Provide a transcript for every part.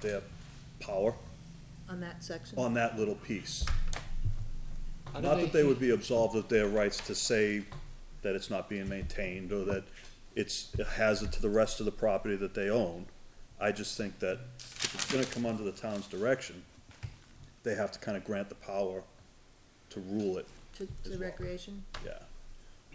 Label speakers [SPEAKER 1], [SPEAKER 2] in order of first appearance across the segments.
[SPEAKER 1] their power
[SPEAKER 2] on that section?
[SPEAKER 1] on that little piece.
[SPEAKER 3] How do
[SPEAKER 1] Not that they would be absolved of their rights to say that it's not being maintained or that it's a hazard to the rest of the property that they own. I just think that if it's gonna come under the town's direction, they have to kind of grant the power to rule it,
[SPEAKER 2] To, to recreation?
[SPEAKER 1] yeah.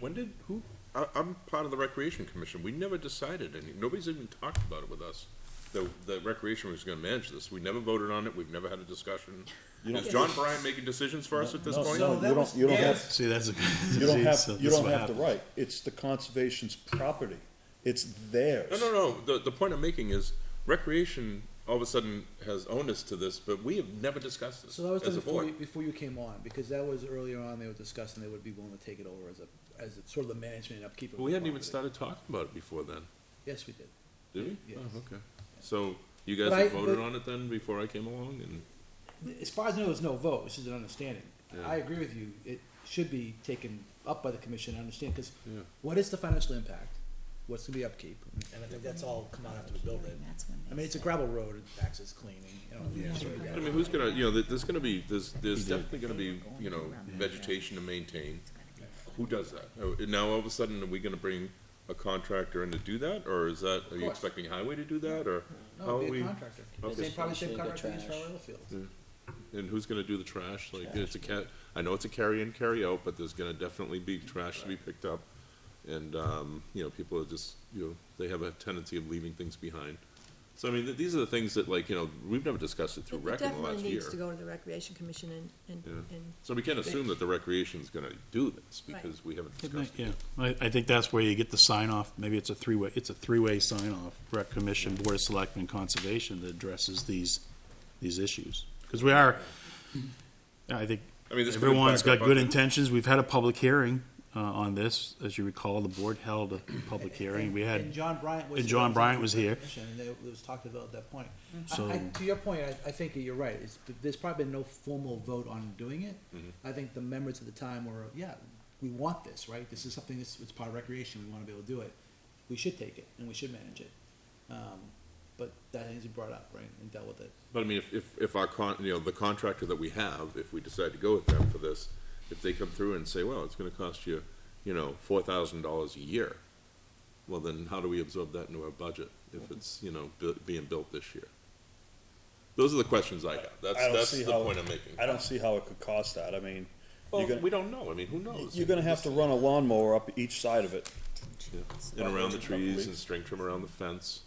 [SPEAKER 4] When did, who? I, I'm part of the Recreation Commission, we never decided any, nobody's even talked about it with us. The, the Recreation was gonna manage this, we never voted on it, we've never had a discussion.
[SPEAKER 1] You don't-
[SPEAKER 4] Is John Bryant making decisions for us at this
[SPEAKER 1] No,
[SPEAKER 4] point?
[SPEAKER 1] no, you don't, you don't have,
[SPEAKER 5] See, that's a.
[SPEAKER 1] you don't have, you don't have the right. It's the conservation's property. It's theirs.
[SPEAKER 4] No, no, no, the, the point I'm making is Recreation all of a sudden has onus to this, but we have never discussed this
[SPEAKER 6] So that was done
[SPEAKER 4] as a
[SPEAKER 6] before you,
[SPEAKER 4] board.
[SPEAKER 6] before you came on, because that was earlier on, they were discussing they would be willing to take it over as a, as a sort of the management and upkeep of the
[SPEAKER 4] But we hadn't even
[SPEAKER 6] property.
[SPEAKER 4] started talking about it before then,
[SPEAKER 6] Yes, we did.
[SPEAKER 4] did we?
[SPEAKER 6] Yes.
[SPEAKER 4] Oh, okay. So you guys
[SPEAKER 6] But
[SPEAKER 4] have
[SPEAKER 6] I-
[SPEAKER 4] voted
[SPEAKER 6] but-
[SPEAKER 4] on it then before I came along and?
[SPEAKER 6] As far as I know, there's no vote, this is an understanding.
[SPEAKER 4] Yeah.
[SPEAKER 6] I agree with you, it should be taken up by the commission, I understand, because
[SPEAKER 4] Yeah.
[SPEAKER 6] what is the financial impact? What's gonna be upkeep? And I think that's all come out after we build it.
[SPEAKER 7] That's when
[SPEAKER 6] I
[SPEAKER 7] they
[SPEAKER 6] mean, it's a
[SPEAKER 7] said-
[SPEAKER 6] gravel road, it access cleaning, you know. it's sort of
[SPEAKER 4] I
[SPEAKER 6] gravel.
[SPEAKER 4] mean, who's gonna, you know, there- there's gonna be, there's, there's definitely gonna be, you know, vegetation to maintain. Who does that? Oh, and Now, all of a sudden, are we gonna bring a contractor in to do that, or is that, are you
[SPEAKER 6] course.
[SPEAKER 4] expecting highway to do that, or? how
[SPEAKER 6] No,
[SPEAKER 4] are
[SPEAKER 6] it'd be
[SPEAKER 4] we?
[SPEAKER 6] a contractor,
[SPEAKER 4] Okay.
[SPEAKER 6] same, probably same
[SPEAKER 8] Especially the
[SPEAKER 6] contractor used for our
[SPEAKER 8] trash.
[SPEAKER 6] oil fields.
[SPEAKER 4] And who's gonna do the trash? Like, it's a cat, I know it's a carry in, carry out, but there's gonna definitely be trash to be picked up. And, um, you know, people are just, you know, they have a tendency of leaving things behind. So, I mean, th- these are the things that, like, you know, we've never discussed it through
[SPEAKER 2] It
[SPEAKER 4] rec in the last year.
[SPEAKER 2] definitely needs to go to the recreation commission and, and,
[SPEAKER 4] Yeah.
[SPEAKER 2] and
[SPEAKER 4] So we can't assume that the recreation's gonna do this,
[SPEAKER 2] Right.
[SPEAKER 4] because we haven't discussed it.
[SPEAKER 5] Yeah, I, I think that's where you get the sign off, maybe it's a three-way, it's a three-way sign off, rec commission, board of selectmen, conservation that addresses these, these issues. Cause we are, I think,
[SPEAKER 4] I mean, this could
[SPEAKER 5] everyone's
[SPEAKER 4] back
[SPEAKER 5] got
[SPEAKER 4] up
[SPEAKER 5] good
[SPEAKER 4] on-
[SPEAKER 5] intentions, we've had a public hearing, uh, on this, as you recall, the board held a public hearing, we
[SPEAKER 6] And
[SPEAKER 5] had,
[SPEAKER 6] John Bryant was.
[SPEAKER 5] and John Bryant was here.
[SPEAKER 6] And there- it was talked about at that point. I-
[SPEAKER 5] So-
[SPEAKER 6] I, to your point, I, I think you're right, it's, there's probably been no formal vote on doing it.
[SPEAKER 5] Mm-hmm.
[SPEAKER 6] I think the members at the time were, yeah, we want this, right, this is something that's, it's part of recreation, we wanna be able to do it. We should take it, and we should manage it, um, but that needs to be brought up, right, and dealt with it.
[SPEAKER 4] But I mean, if, if, if our con, you know, the contractor that we have, if we decide to go with them for this, if they come through and say, well, it's gonna cost you, you know, four thousand dollars a year, well, then how do we absorb that into our budget if it's, you know, bu- being built this year? Those are the questions I have, that's,
[SPEAKER 1] I don't
[SPEAKER 4] that's
[SPEAKER 1] see
[SPEAKER 4] the
[SPEAKER 1] how-
[SPEAKER 4] point I'm making.
[SPEAKER 1] I don't see how it could cost that. I mean,
[SPEAKER 4] Well,
[SPEAKER 1] you're gonna-
[SPEAKER 4] we don't know, I mean, who knows?
[SPEAKER 1] you're gonna have to run a lawnmower up each side of it.
[SPEAKER 4] And around the trees and string trim around the fence.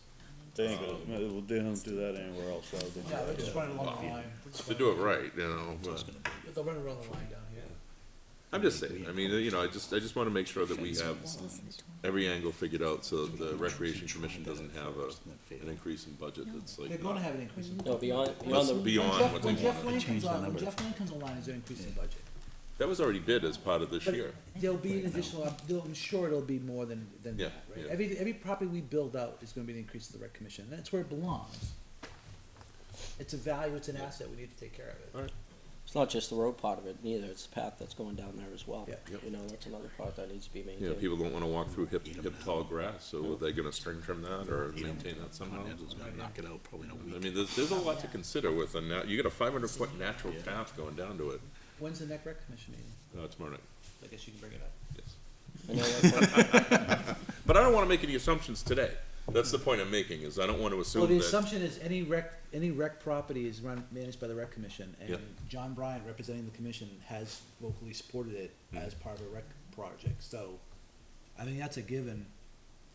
[SPEAKER 1] They ain't gonna, they don't do that anywhere else, rather than.
[SPEAKER 6] Yeah, they're just running along the line,
[SPEAKER 4] If they do it right, you know, uh, but-
[SPEAKER 6] they'll run around the line down here.
[SPEAKER 4] I'm just saying, I mean, you know, I just, I just wanna make sure that we have every angle figured out so that the recreation commission doesn't have a, an increase in budget that's like.
[SPEAKER 6] They're gonna have an increase in.
[SPEAKER 8] No, beyond,
[SPEAKER 4] That's
[SPEAKER 8] beyond the,
[SPEAKER 4] beyond what
[SPEAKER 6] When
[SPEAKER 4] they
[SPEAKER 6] Jeff
[SPEAKER 4] want.
[SPEAKER 6] Lane comes
[SPEAKER 5] the
[SPEAKER 6] on, when
[SPEAKER 5] number.
[SPEAKER 6] Jeff Lane comes online, is there increase in budget?
[SPEAKER 4] That was already bid as part of this
[SPEAKER 6] But
[SPEAKER 4] year.
[SPEAKER 6] There'll be an additional, up- there'll- I'm sure it'll be more than, than
[SPEAKER 4] Yeah,
[SPEAKER 6] that, right?
[SPEAKER 4] yeah.
[SPEAKER 6] Every, every property we build out is gonna be an increase to the rec commission, and that's where it belongs. It's a value, it's an asset, we need to take care of it.
[SPEAKER 8] it's not just the road part of it neither, it's the path that's going down there as well.
[SPEAKER 6] Yeah.
[SPEAKER 4] Yep.
[SPEAKER 8] You know, that's another part that needs to be
[SPEAKER 4] You know,
[SPEAKER 8] maintained.
[SPEAKER 4] people don't wanna walk through hip, hip tall grass, so are they gonna string trim that or maintain that somehow?
[SPEAKER 5] Continental's gonna knock it out probably in a
[SPEAKER 4] I
[SPEAKER 5] week.
[SPEAKER 4] mean, there's, there's a lot to consider with a nat, you got a five hundred foot natural path going down to it,
[SPEAKER 6] When's the next rec commission meeting?
[SPEAKER 4] uh, tomorrow night,
[SPEAKER 6] I guess you can bring it up.
[SPEAKER 4] yes.
[SPEAKER 8] I know that's one-
[SPEAKER 4] But I don't wanna make any assumptions today. That's the point I'm making, is I don't wanna
[SPEAKER 6] Well,
[SPEAKER 4] assume
[SPEAKER 6] the
[SPEAKER 4] that.
[SPEAKER 6] assumption is any rec, any rec property is run, managed by the rec commission, and
[SPEAKER 4] Yep.
[SPEAKER 6] John Bryant, representing the commission, has vocally supported it
[SPEAKER 4] Hmm.
[SPEAKER 6] as part of a rec project, so I think that's a given.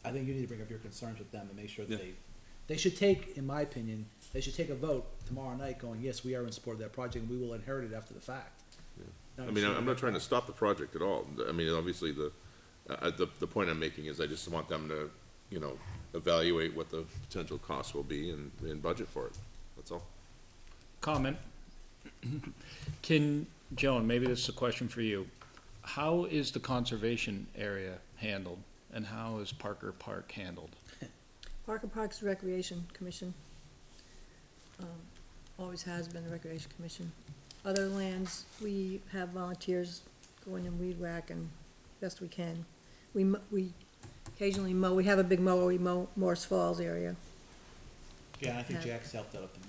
[SPEAKER 6] I think you need to bring up your concerns with them and make sure that
[SPEAKER 4] Yeah.
[SPEAKER 6] they, they should take, in my opinion, they should take a vote tomorrow night going, yes, we are in support of that project, and we will inherit it after the fact.
[SPEAKER 4] I mean, I'm not trying to stop the project at all. I mean, obviously, the, uh, the, the point I'm making is I just want them to, you know, evaluate what the potential costs will be and, and budget for it. That's all.
[SPEAKER 9] comment. Can, Joan, maybe this is a question for you. How is the conservation area handled and how is Parker Park handled?
[SPEAKER 2] Parker Parks Recreation Commission. um, Always has been the Recreation Commission. Other lands, we have volunteers go in and weed whack and best we can. We, mo- we occasionally mow, we have a big mower, we mow Morse Falls area.
[SPEAKER 6] Yeah, I think
[SPEAKER 2] Yeah.
[SPEAKER 6] Jack's helped out up in